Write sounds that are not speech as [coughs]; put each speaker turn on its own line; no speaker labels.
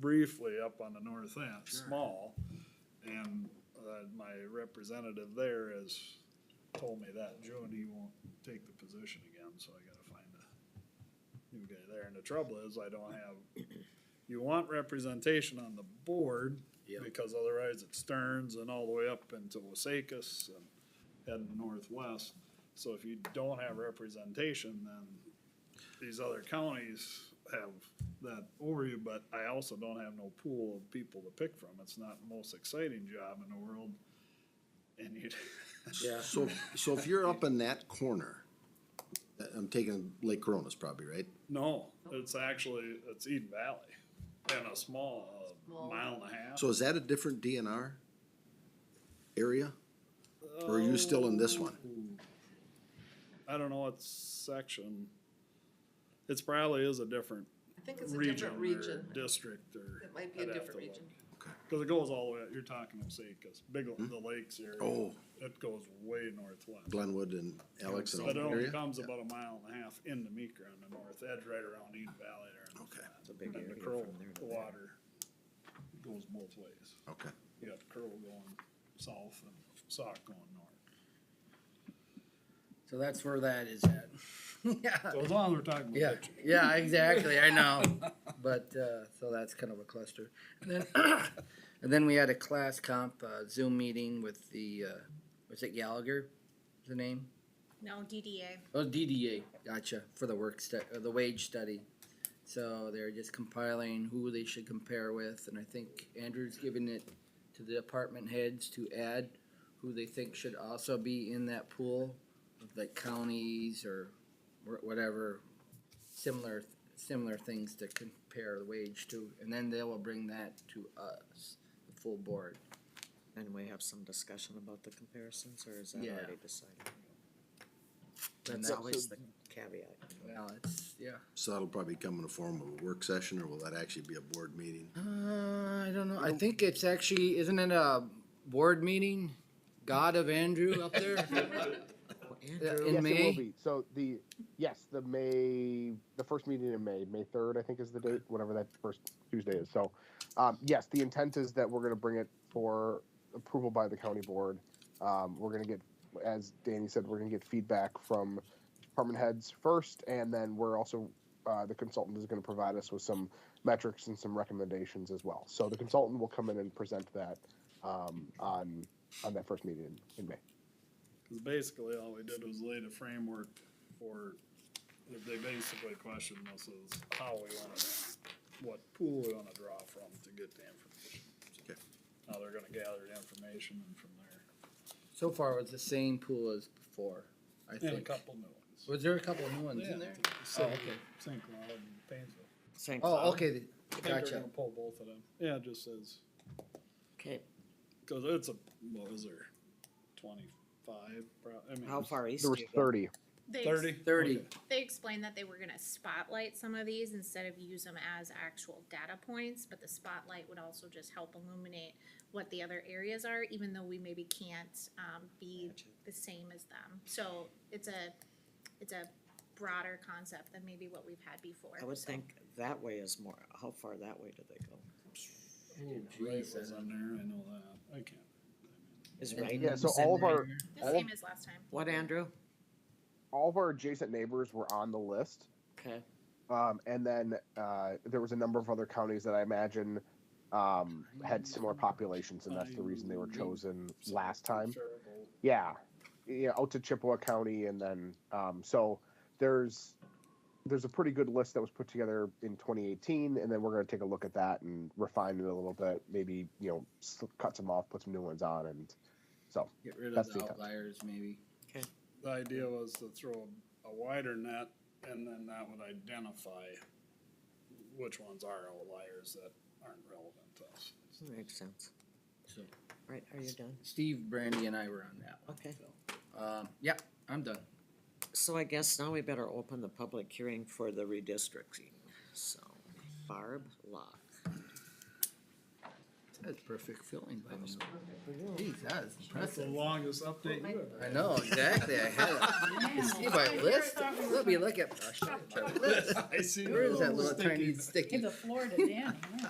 briefly up on the north end,
Sure.
small. And, uh, my representative there has told me that June he won't take the position again, so I gotta find a new guy there. And the trouble is, I don't have, you want representation on the board,
Yep.
because otherwise it Stearns and all the way up into Wasakus and heading northwest. So if you don't have representation, then these other counties have that over you, but I also don't have no pool of people to pick from. It's not the most exciting job in the world. And you, [laughs]
Yeah,
So, so if you're up in that corner, uh, I'm taking Lake Corona's probably, right?
no, it's actually, it's Eden Valley and a small, uh, mile and a half.
So is that a different DNR area? Or are you still in this one?
I don't know what section. It's probably is a different
I think it's a
region
different
or
region.
district or.
It might be a
I'd have
different
to look.
region.
Cause it goes all the way, out. you're talking Osakas, big, L- the lakes area.
Hmm? Oh.
It goes way northwest.
Glenwood and Alex and all
But
that
it only
area?
comes about a mile and a half into Meeker on the north edge, right around Eden Valley there. on the
Okay.
flat.
It's a big
And the
area
Crow,
from there to
the
there.
water goes both ways.
Okay.
You got Crow going south and Sauk going north.
So that's where that is at. [laughs] Yeah,
So as long as we're talking about
yeah,
ditches.
yeah, exactly, I know, but, uh, so that's kind of a cluster. And then- [coughs] And then we had a class comp uh, Zoom meeting with the, uh, was it Gallagher, is the name?
No, DDA.
Oh, DDA, gotcha, for the work stu- or the wage study. So they're just compiling who they should compare with, and I think Andrew's giving it to the department heads to add who they think should also be in that pool, like counties or wh- whatever, similar, similar things to compare the wage to, and then they will bring that to us, the full board.
And we have some discussion about the comparisons, or is that
Yeah.
already decided?
And
That's
that-
always the caveat.
Well, it's, yeah.
So that'll probably come in the form of a work session or will that actually be a board meeting?
Uh, I don't know. I think it's actually, isn't it a board meeting? God of Andrew up [laughs] there?
Well,
Yeah, in
Andrew,
yes, it will
May?
be. So the yes, the May, the first meeting in May, May third, I think is the date, whatever that first Tuesday is. So, um, yes, the intent is that we're going to bring it for approval by the county board. Um, we're going to get, as Danny said, we're going to get feedback from department heads first, and then we're also uh, the consultant is going to provide us with some metrics and some recommendations as well. So the consultant will come in and present that um, on on that first meeting in, in May.
Cause basically all we did was lay the framework for, they basically questioned us is how we wanna, what pool we wanna draw from to get the information. So
Okay.
Now they're gonna gather the information and from there,
So far, it's the same pool as before, I
and a
think.
couple new ones. Oh,
Was there a couple new ones in
Yeah,
there?
St.
okay.
St. Cloud and Painesville.
St.
Oh,
Cloud.
okay, the-
I think they're
gotcha.
gonna pull both of them. Yeah, it just says,
Okay,
cause it's a, what was there, twenty-five, pro, I mean.
how far east
There
do
was
you go?
thirty.
They ex-
Thirty?
Thirty.
Okay.
They explained that they were gonna spotlight some of these instead of use them as actual data points, but the spotlight would also just help illuminate what the other areas are, even though we maybe can't, um, be
Gotcha.
the same as them. So it's a, it's a broader concept than maybe what we've had before.
I would
so.
think that way is more, how far that way do they go?
Right was on there, I know that, I can't.
Is
And
right,
Yeah. So all of our
The
all-
same as last time.
what, Andrew?
all of our adjacent neighbors were on the list.
Okay,
Um, and then uh, there was a number of other counties that I imagine um, had similar populations, and that's the reason they were chosen last time.
Comparable.
Yeah, yeah, out to Chippewa County, and then um, so there's there's a pretty good list that was put together in 2018, and then we're going to take a look at that and refine it a little bit. Maybe you know s- cut some off, put some new ones on, and so
Get rid of
That's
the
the-
outliers, maybe.
The idea was to throw a wider net and then that would identify which ones are outliers that aren't relevant to us.
that makes sense.
So-
Right, are you done?
Steve, Brandy, and I were on that one.
Okay.
Um, yeah, I'm done.
So I guess now we better open the public hearing for the redistricting, so Barb Locke.
That's perfect filling by me. Geez, that
That's
is
the
impressive.
longest update you
I know, exactly. I [laughs] had it. You see my list? Let me look at, I should have checked.
[laughs] I see.
Where is that little
Sticky
tiny sticky?
Give the floor to Danny.